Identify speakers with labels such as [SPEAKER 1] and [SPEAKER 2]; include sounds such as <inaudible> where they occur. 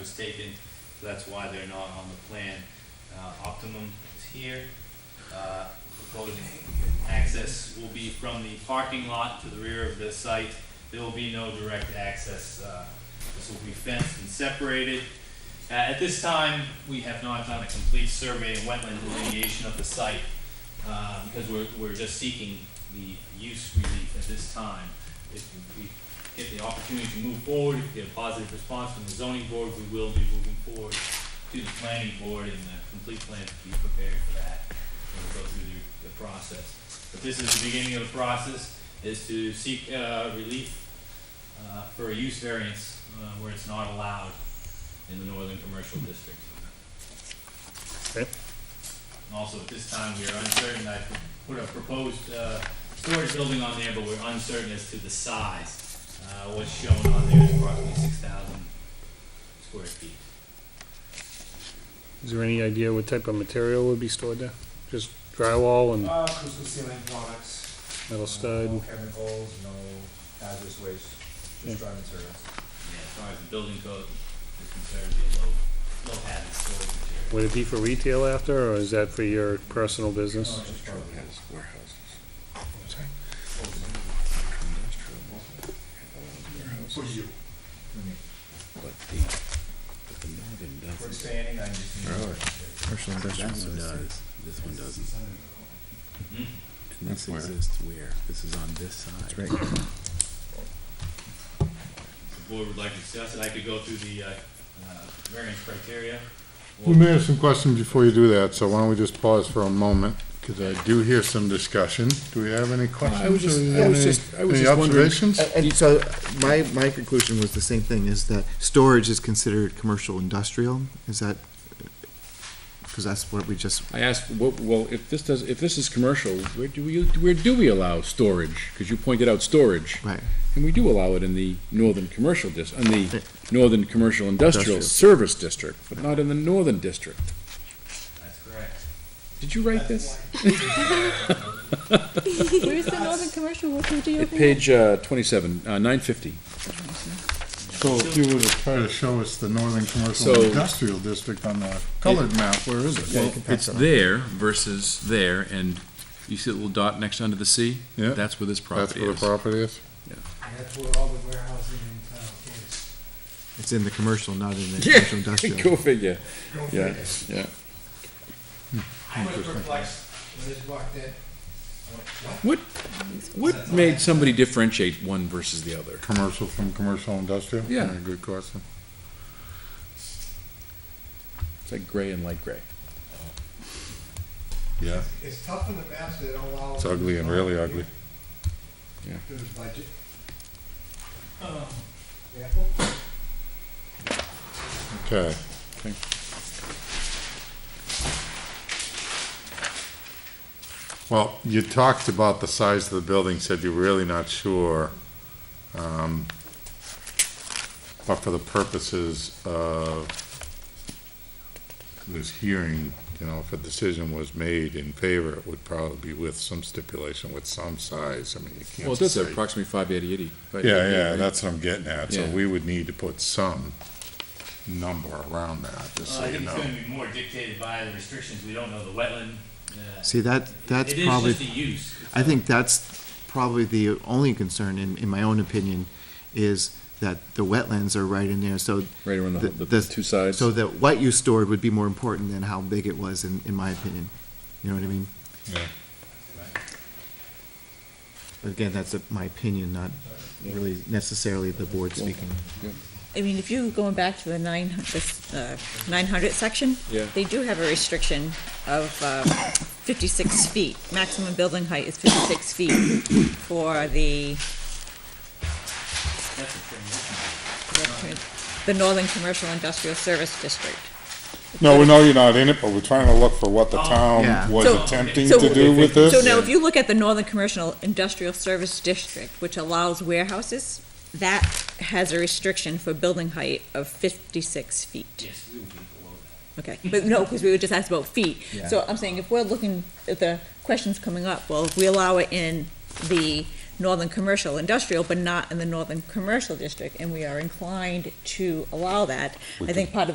[SPEAKER 1] was taken, so that's why they're not on the plan. Uh, Optimum is here. Uh, Proposed access will be from the parking lot to the rear of the site. There will be no direct access. uh, This will be fenced and separated. Uh, At this time, we have not done a complete survey and wetland delineation of the site uh, because we're, we're just seeking the use relief at this time. If we get the opportunity to move forward, if we get a positive response from the zoning board, we will be moving forward to the planning board and the complete plan to be prepared for that. And we'll go through the, the process. But this is the beginning of the process, is to seek, uh, relief, uh, for a use variance, uh, where it's not allowed in the northern commercial district.
[SPEAKER 2] Okay.
[SPEAKER 1] And also, at this time, we are uncertain, I put a proposed, uh, storage building on there, but we're uncertain as to the size. Uh, what's shown on there is approximately six thousand square feet.
[SPEAKER 2] Is there any idea what type of material would be stored there? Just drywall and
[SPEAKER 3] Uh, crystal ceiling products.
[SPEAKER 2] metal
[SPEAKER 3] uh,
[SPEAKER 2] stud?
[SPEAKER 3] No chemicals, no hazardous waste,
[SPEAKER 2] Yeah.
[SPEAKER 3] just dry materials.
[SPEAKER 1] Yeah, as far as the building code is concerned, it'd be a low, low hazard storage material.
[SPEAKER 2] Would it be for retail after, or is that for your personal
[SPEAKER 3] No,
[SPEAKER 2] business?
[SPEAKER 3] just part of it.
[SPEAKER 4] For you.
[SPEAKER 3] I mean,
[SPEAKER 4] But the, but the northern
[SPEAKER 3] For
[SPEAKER 4] doesn't.
[SPEAKER 3] expanding, I just need.
[SPEAKER 4] Really?
[SPEAKER 5] Commercial industrial.
[SPEAKER 4] That one does, this one doesn't.
[SPEAKER 1] Hmm?
[SPEAKER 4] And this
[SPEAKER 5] That's where-
[SPEAKER 4] exists where? This is on this side.
[SPEAKER 5] That's right.
[SPEAKER 1] If the board would like to discuss it, I could go through the, uh, uh, variance criteria. Uh,
[SPEAKER 6] We may have some questions before you do that, so why don't we just pause for a moment, because I do hear some discussion. Do we have any questions?
[SPEAKER 5] I was just-
[SPEAKER 6] or
[SPEAKER 5] I
[SPEAKER 6] any-
[SPEAKER 5] was just- I was
[SPEAKER 6] any
[SPEAKER 5] just wondering- Uh,
[SPEAKER 6] observations?
[SPEAKER 5] And- And so my, my conclusion was the same thing, is that storage is considered commercial industrial, is that, because that's what we just,
[SPEAKER 4] I asked, well, well, if this does, if this is commercial, where do we, where do we allow storage? Because you pointed out storage,
[SPEAKER 5] right,
[SPEAKER 4] and we do allow it in the northern commercial dis, in the northern commercial industrial
[SPEAKER 5] Industrial.
[SPEAKER 4] service district, but not in the northern district.
[SPEAKER 1] That's correct.
[SPEAKER 4] Did you write this?
[SPEAKER 7] Where's the Northern Commercial? What page are you
[SPEAKER 4] At
[SPEAKER 7] looking at?
[SPEAKER 4] page, uh, twenty-seven, uh, nine fifty.
[SPEAKER 6] So if you were to try to show us the Northern Commercial
[SPEAKER 4] So-
[SPEAKER 6] Industrial District on the colored map, where is it?
[SPEAKER 5] Yeah, you can pass
[SPEAKER 4] It's
[SPEAKER 5] that on.
[SPEAKER 4] there versus there, and you see the little dot next under the C?
[SPEAKER 6] Yeah.
[SPEAKER 4] That's where this
[SPEAKER 6] That's
[SPEAKER 4] property
[SPEAKER 6] where the
[SPEAKER 4] is.
[SPEAKER 6] property is?
[SPEAKER 3] That's where all the warehousing in town is.
[SPEAKER 5] it's in the commercial, not in the
[SPEAKER 4] Yeah,
[SPEAKER 1] <laughs>
[SPEAKER 4] <laughs>
[SPEAKER 5] commercial industrial.
[SPEAKER 4] Go figure. Yeah, yeah.
[SPEAKER 3] I was perplexed when this walked in.
[SPEAKER 4] What made somebody differentiate one versus the other?
[SPEAKER 6] Commercial from commercial industrial?
[SPEAKER 4] Yeah.
[SPEAKER 6] Good question.
[SPEAKER 4] It's like gray and light gray.
[SPEAKER 6] Yeah,
[SPEAKER 3] It's tough in the maps, they don't allow.
[SPEAKER 6] it's ugly and really ugly.
[SPEAKER 3] There's budget.
[SPEAKER 1] Oh.
[SPEAKER 3] Example.
[SPEAKER 6] Okay.
[SPEAKER 4] Okay.
[SPEAKER 6] Well, you talked about the size of the building, said you're really not sure. um, But for the purposes of this hearing, you know, if a decision was made in favor, it would probably be with some stipulation, with some size. I mean, you can't.
[SPEAKER 4] Well, it does
[SPEAKER 6] say-
[SPEAKER 4] have approximately five eighty eighty.
[SPEAKER 6] yeah, yeah, that's what I'm getting at, so
[SPEAKER 4] Yeah.
[SPEAKER 6] we would need to put some number around that, just
[SPEAKER 1] Uh,
[SPEAKER 6] so
[SPEAKER 1] I
[SPEAKER 6] you
[SPEAKER 1] think it's
[SPEAKER 6] know.
[SPEAKER 1] gonna be more dictated by the restrictions, we don't know the wetland. uh,
[SPEAKER 5] See, that, that's
[SPEAKER 1] it is
[SPEAKER 5] probably,
[SPEAKER 1] just a use. It's
[SPEAKER 5] I think that's probably the only concern, in, in my own opinion, is that the wetlands are right in there, so,
[SPEAKER 4] Right around the, the
[SPEAKER 5] The- this-
[SPEAKER 4] two sides.
[SPEAKER 5] so that what you stored would be more important than how big it was, in, in my opinion. You know what I mean?
[SPEAKER 6] Yeah.
[SPEAKER 5] But again, that's a- my opinion, not really necessarily the board speaking.
[SPEAKER 7] I mean, if you going back to the nine, this, uh, nine hundred section,
[SPEAKER 4] Yeah.
[SPEAKER 7] they do have a restriction of, um, fifty-six feet. Maximum building height is fifty-six feet for the,
[SPEAKER 1] a- That's a transition.
[SPEAKER 7] the Northern Commercial Industrial Service District.
[SPEAKER 6] No, we know you're not in it, but we're trying to look for what the
[SPEAKER 1] Oh.
[SPEAKER 5] Yeah.
[SPEAKER 6] town was
[SPEAKER 7] So-
[SPEAKER 6] attempting
[SPEAKER 7] so-
[SPEAKER 6] to do with this.
[SPEAKER 7] So now, if you look at the Northern Commercial Industrial Service District, which allows warehouses, that has a restriction for building height of fifty-six feet.
[SPEAKER 1] Yes, we will be below that.
[SPEAKER 7] Okay, but no, because we were just asked about feet.
[SPEAKER 5] Yeah.
[SPEAKER 7] So I'm saying if we're looking at the questions coming up, well, if we allow it in the northern commercial industrial, but not in the northern commercial district, and we are inclined to allow that. I think part of